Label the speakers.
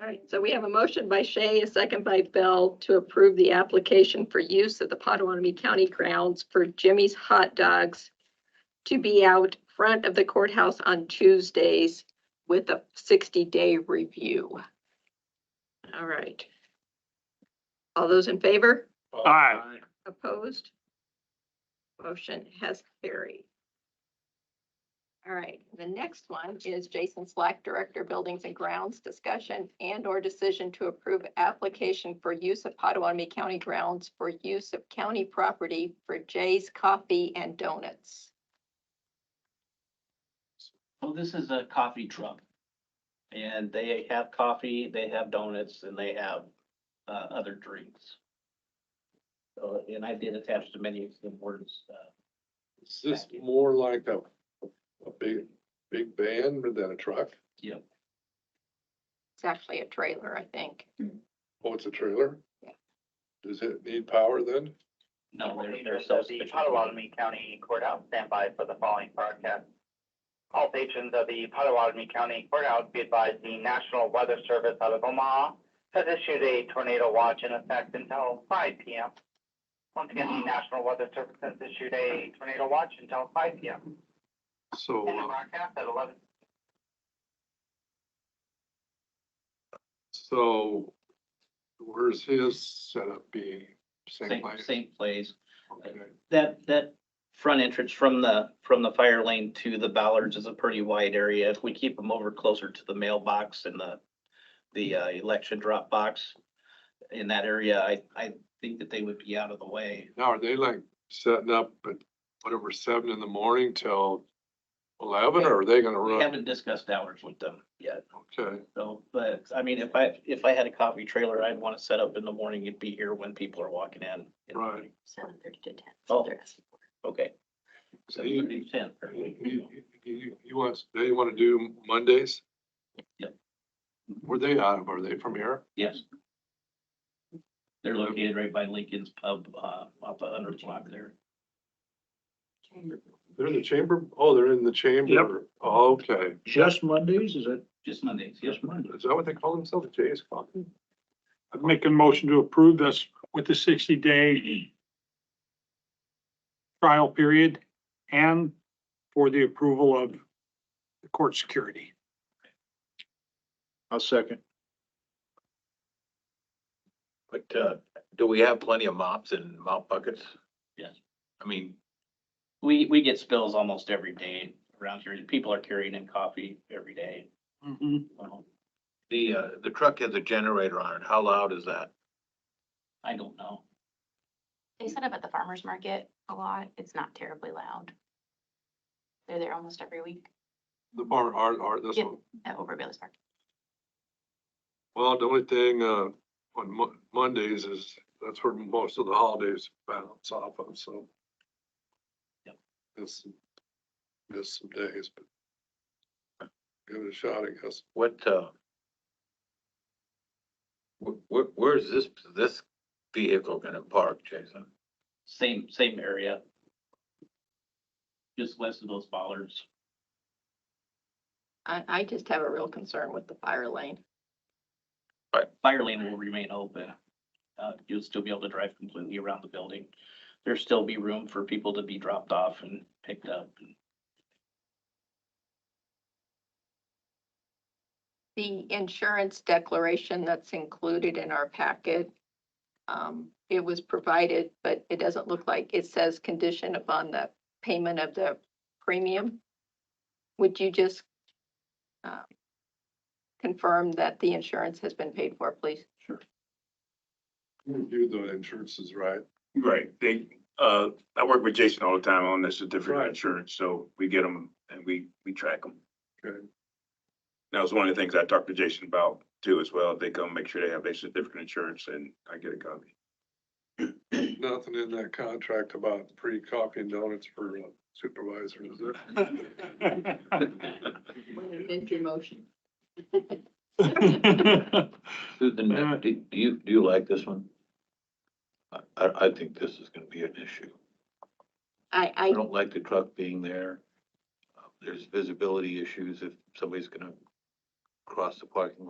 Speaker 1: All right, so we have a motion by Shay, a second by Bell to approve the application for use of the Potawatomi County grounds for Jimmy's Hot Dogs to be out front of the courthouse on Tuesdays with a 60-day review. All right. All those in favor?
Speaker 2: Uh,
Speaker 3: Aye.
Speaker 1: Opposed? Motion has carried. All right, the next one is Jason Slack, Director, Buildings and Grounds, discussion and/or decision to approve application for use of Potawatomi County grounds for use of county property for Jay's Coffee and Donuts.
Speaker 4: Well, Oh, this is a coffee truck. And they have coffee, they have donuts, and they have uh other drinks. So, and I did attach to many of the words, uh,
Speaker 2: Is this more like a, a big, big van than a truck?
Speaker 1: It's actually a trailer, I think.
Speaker 2: Oh, it's a trailer?
Speaker 1: Yeah.
Speaker 2: Does it need power then?
Speaker 4: no, they're, they're
Speaker 5: The Potawatomi County Courthouse standby for the following broadcast. All patrons of the Potawatomi County Courthouse be advised the National Weather Service out of Omaha has issued a tornado watch in effect until five P M. Once again, the National Weather Service has issued a tornado watch until five P M.
Speaker 3: So,
Speaker 5: And the
Speaker 3: uh,
Speaker 5: broadcast at eleven
Speaker 2: So where's his setup being? Same
Speaker 4: Same,
Speaker 2: place?
Speaker 4: same place.
Speaker 2: Okay.
Speaker 4: That, that front entrance from the, from the fire lane to the Ballards is a pretty wide area. If we keep them over closer to the mailbox and the, the uh, election drop box in that area, I, I think that they would be out of the way.
Speaker 2: Now, are they like setting up at whatever, seven in the morning till eleven, or are they gonna
Speaker 4: We
Speaker 2: run?
Speaker 4: haven't discussed hours with them yet,
Speaker 2: Okay,
Speaker 4: so, but, I mean, if I, if I had a coffee trailer, I'd want to set up in the morning and be here when people are walking in. in the
Speaker 2: Right.
Speaker 4: morning.
Speaker 1: Seven thirty to ten.
Speaker 4: Oh. Okay.
Speaker 2: so
Speaker 4: So
Speaker 2: he,
Speaker 4: pretty ten.
Speaker 2: he, he, he wants, they wanna do Mondays?
Speaker 4: Yep.
Speaker 2: Where they out of, are they from here?
Speaker 4: Yes. They're located right by Lincoln's Pub, uh, off the hundred block there.
Speaker 2: They're in the chamber? Oh, they're in the chamber. Oh, Okay.
Speaker 3: just Mondays, is it?
Speaker 4: Just Mondays, yes, Monday.
Speaker 2: Is that what they call themselves? Jay's Coffee?
Speaker 3: I'm making a motion to approve this with the sixty day trial period and for the approval of the court security.
Speaker 6: I'll second.
Speaker 7: But uh, do we have plenty of mops and mop buckets?
Speaker 4: Yes.
Speaker 7: I mean,
Speaker 4: We, we get spills almost every day around here. People are carrying in coffee every day. Well,
Speaker 7: the, uh, the truck has a generator on it. How loud is that?
Speaker 4: I don't know.
Speaker 8: They set up at the farmer's market a lot. It's not terribly loud. They're there almost every week
Speaker 2: The bar, our, our, this
Speaker 8: Yep.
Speaker 2: one.
Speaker 8: at Over Bailey's Park.
Speaker 2: Well, the only thing, uh, on Mo- Mondays is, that's where most of the holidays bounce off of, so.
Speaker 4: Yep.
Speaker 2: Miss, miss some days, but give it a shot, I guess.
Speaker 7: What, uh, where, where's this, this vehicle gonna park, Jason?
Speaker 4: Same, same area. Just west of those bollards.
Speaker 1: I, I just have a real concern with the fire lane.
Speaker 4: Fire lane will remain open. Uh, you'll still be able to drive completely around the building. There'll still be room for people to be dropped off and picked up.
Speaker 1: The insurance declaration that's included in our packet. um, It was provided, but it doesn't look like, it says condition upon the payment of the premium. Would you just uh, confirm that the insurance has been paid for, please?
Speaker 2: You do the insurances, right?
Speaker 6: Right, they, uh, I work with Jason all the time on this certificate
Speaker 2: Right.
Speaker 6: of insurance, so we get them and we, we track them.
Speaker 2: Okay.
Speaker 6: That was one of the things I talked to Jason about too as well. They come make sure they have their certificate of insurance and I get a copy.
Speaker 2: Nothing in that contract about free coffee and donuts for uh, supervisors, is there?
Speaker 1: Amend your motion.
Speaker 7: Susan,
Speaker 3: Uh.
Speaker 7: do do you, do you like this one? I, I, I think this is gonna be an issue.
Speaker 1: I,
Speaker 7: I
Speaker 1: I,
Speaker 7: don't like the truck being there. Uh, There's visibility issues if somebody's gonna cross the parking